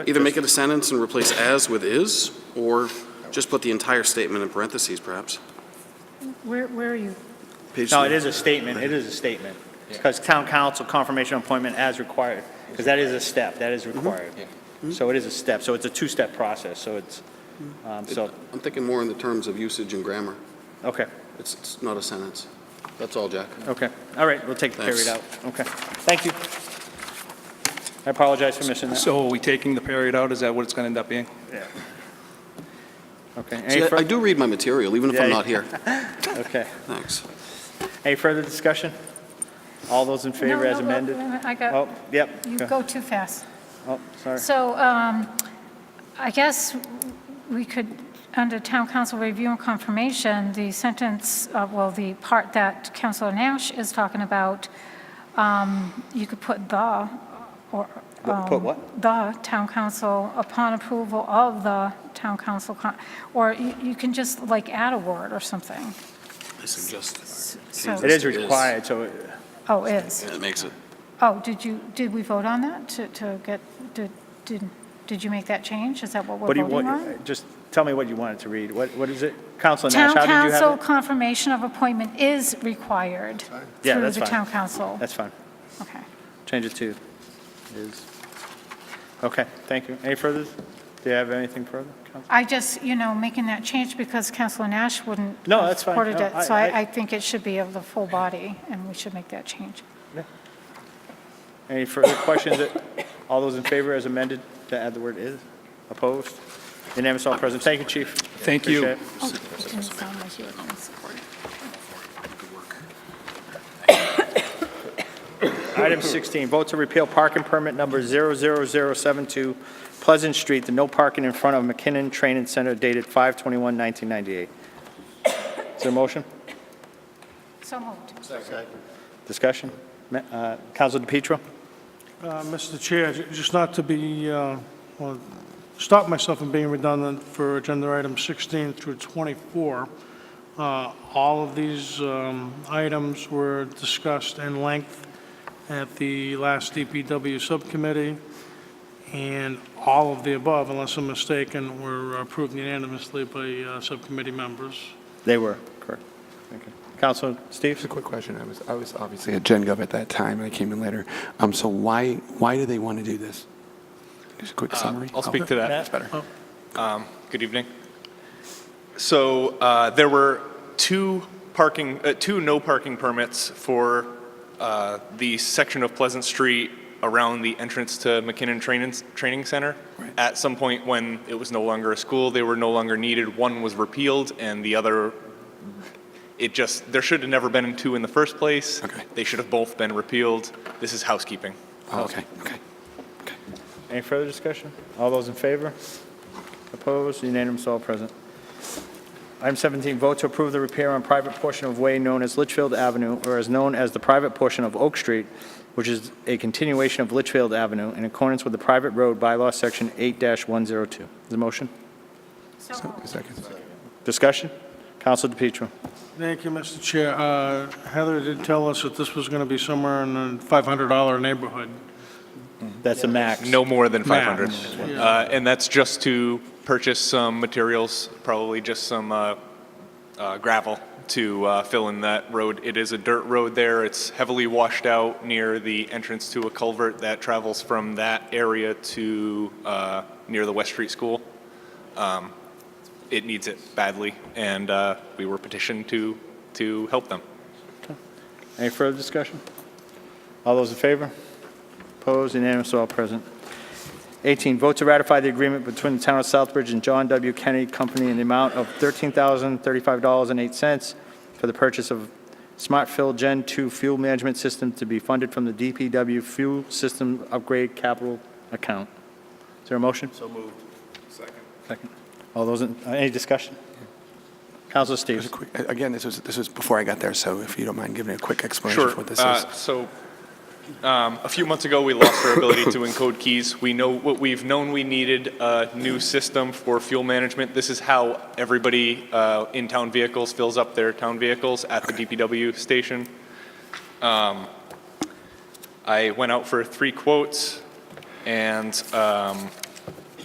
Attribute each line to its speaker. Speaker 1: Either make it a sentence and replace as with is, or just put the entire statement in parentheses, perhaps.
Speaker 2: Where, where are you?
Speaker 3: No, it is a statement, it is a statement. Because town council confirmation appointment as required, because that is a step, that is required.
Speaker 1: Mm-hmm.
Speaker 3: So it is a step, so it's a two-step process, so it's, um, so,
Speaker 1: I'm thinking more in the terms of usage and grammar.
Speaker 3: okay,
Speaker 1: It's, it's not a sentence. That's all, Jack.
Speaker 3: okay. All right, we'll take the
Speaker 1: Thanks.
Speaker 3: period out. Okay, thank you. I apologize for missing that.
Speaker 4: So are we taking the period out? Is that what it's going to end up being?
Speaker 3: Okay,
Speaker 1: See,
Speaker 3: any
Speaker 1: I I
Speaker 3: further,
Speaker 1: do read my material, even if
Speaker 3: Yeah,
Speaker 1: I'm
Speaker 3: yeah.
Speaker 1: not here.
Speaker 3: okay.
Speaker 1: Thanks.
Speaker 3: Any further discussion? All those in favor
Speaker 2: No,
Speaker 3: as
Speaker 2: no, no,
Speaker 3: amended?
Speaker 2: wait a minute, I
Speaker 3: Oh,
Speaker 2: got,
Speaker 3: yep.
Speaker 2: you
Speaker 3: go-
Speaker 2: go too fast.
Speaker 3: Oh, sorry.
Speaker 2: So um, I guess we could, under town council review and confirmation, the sentence, uh, well, the part that Councilor Nash is talking about, um, you could put the, or.
Speaker 3: Put- put
Speaker 2: um,
Speaker 3: what?
Speaker 2: The town council, upon approval of the town council, con- or you you can just like add a word or something.
Speaker 1: I suggest.
Speaker 2: So-
Speaker 3: It is required, so it-
Speaker 2: Oh, is.
Speaker 1: It makes it.
Speaker 2: Oh, did you, did we vote on that to, to get, did, did, did you make that change? Is that what we're
Speaker 3: what do you
Speaker 2: voting on?
Speaker 3: want, just tell me what you wanted to read. What, what is it? Counselor Nash,
Speaker 2: Town
Speaker 3: how did you
Speaker 2: council
Speaker 3: have it?
Speaker 2: confirmation of appointment is required
Speaker 3: Yeah,
Speaker 2: through
Speaker 3: that's
Speaker 2: the
Speaker 3: fine.
Speaker 2: town council.
Speaker 3: That's fine.
Speaker 2: Okay.
Speaker 3: Change it to is. Okay, thank you. Any further? Do you have anything further? Counsel?
Speaker 2: I just, you know, making that change because Councilor Nash wouldn't.
Speaker 3: No,
Speaker 2: have
Speaker 3: that's fine.
Speaker 2: Supported
Speaker 3: No,
Speaker 2: it,
Speaker 3: I-
Speaker 2: so
Speaker 3: I-
Speaker 2: I, I think it should be of the full body, and we should make that change.
Speaker 3: Any further questions? All those in favor as amended to add the word is? Opposed? Unanimous, all present. Thank you, chief.
Speaker 4: Thank you.
Speaker 3: Appreciate it.
Speaker 2: Oh, it didn't sound like you were gonna support it.
Speaker 3: Item 16, vote to repeal parking permit number 00072 Pleasant Street, the no parking in front of McKinnon Training Center dated 5/21/1998. Is there a motion?
Speaker 2: So moved.
Speaker 3: Discussion? Ma- uh, Counselor DePietro?
Speaker 5: Uh, Mr. Chair, j- just not to be, uh, well, stop myself from being redundant for agenda items 16 through 24. Uh, All of these um, items were discussed in length at the last DPW subcommittee, and all of the above, unless I'm mistaken, were approved unanimously by uh, subcommittee members.
Speaker 3: They were, correct. Thank you. Counselor Steves?
Speaker 6: Just a quick question. I was, I was obviously at Gen Gov at that time, and I came in later. Um, so why, why do they want to do this? Just a quick summary.
Speaker 7: Uh,
Speaker 6: Oh,
Speaker 7: I'll speak to that.
Speaker 6: That's better.
Speaker 7: Good evening. So uh, there were two parking, uh, two no parking permits for uh, the section of Pleasant Street around the entrance to McKinnon Training, Training Center. At some point when it was no longer a school, they were no longer needed. One was repealed and the other, it just, there should have never been two in the first place.
Speaker 6: Okay.
Speaker 7: They should have both been repealed. This is housekeeping.
Speaker 6: Oh, okay, okay.
Speaker 3: Any further discussion? All those in favor? Opposed? Unanimous, all present. Item 17, vote to approve the repair on private portion of way known as Litchfield Avenue, or as known as the private portion of Oak Street, which is a continuation of Litchfield Avenue in accordance with the private road bylaw, section 8-102. Is the motion?
Speaker 2: So moved.
Speaker 6: Second.
Speaker 3: Discussion? Counselor DePietro.
Speaker 5: Thank you, Mr. Chair. Uh, Heather did tell us that this was going to be somewhere in the $500 neighborhood.
Speaker 3: That's the max.
Speaker 7: No more than
Speaker 5: Max.
Speaker 7: 500. Uh, And that's just to purchase some materials, probably just some uh, uh, gravel to uh, fill in that road. It is a dirt road there. It's heavily washed out near the entrance to a culvert that travels from that area to uh, near the West Street School. Um, It needs it badly, and uh, we were petitioned to, to help them.
Speaker 3: Any further discussion? All those in favor? Opposed? Unanimous, all present. 18, vote to ratify the agreement between the Town of Southbridge and John W. Kennedy Company in the amount of $13,035.08 for the purchase of Smart Fill Gen 2 fuel management system to be funded from the DPW Fuel System Upgrade Capital Account. Is there a motion? So moved. Second. Second. All those, in- uh, any discussion? Counselor Steves?
Speaker 6: Just a quick, again, this was, this was before I got there, so if you don't mind giving a quick explanation
Speaker 7: Sure.
Speaker 6: of what this
Speaker 7: Uh,
Speaker 6: is.
Speaker 7: So, um, a few months ago, we lost our ability to encode keys. We know, what we've known we needed a new system for fuel management. This is how everybody uh, in town vehicles fills up their town vehicles at the DPW station. Um, I went out for three quotes, and um,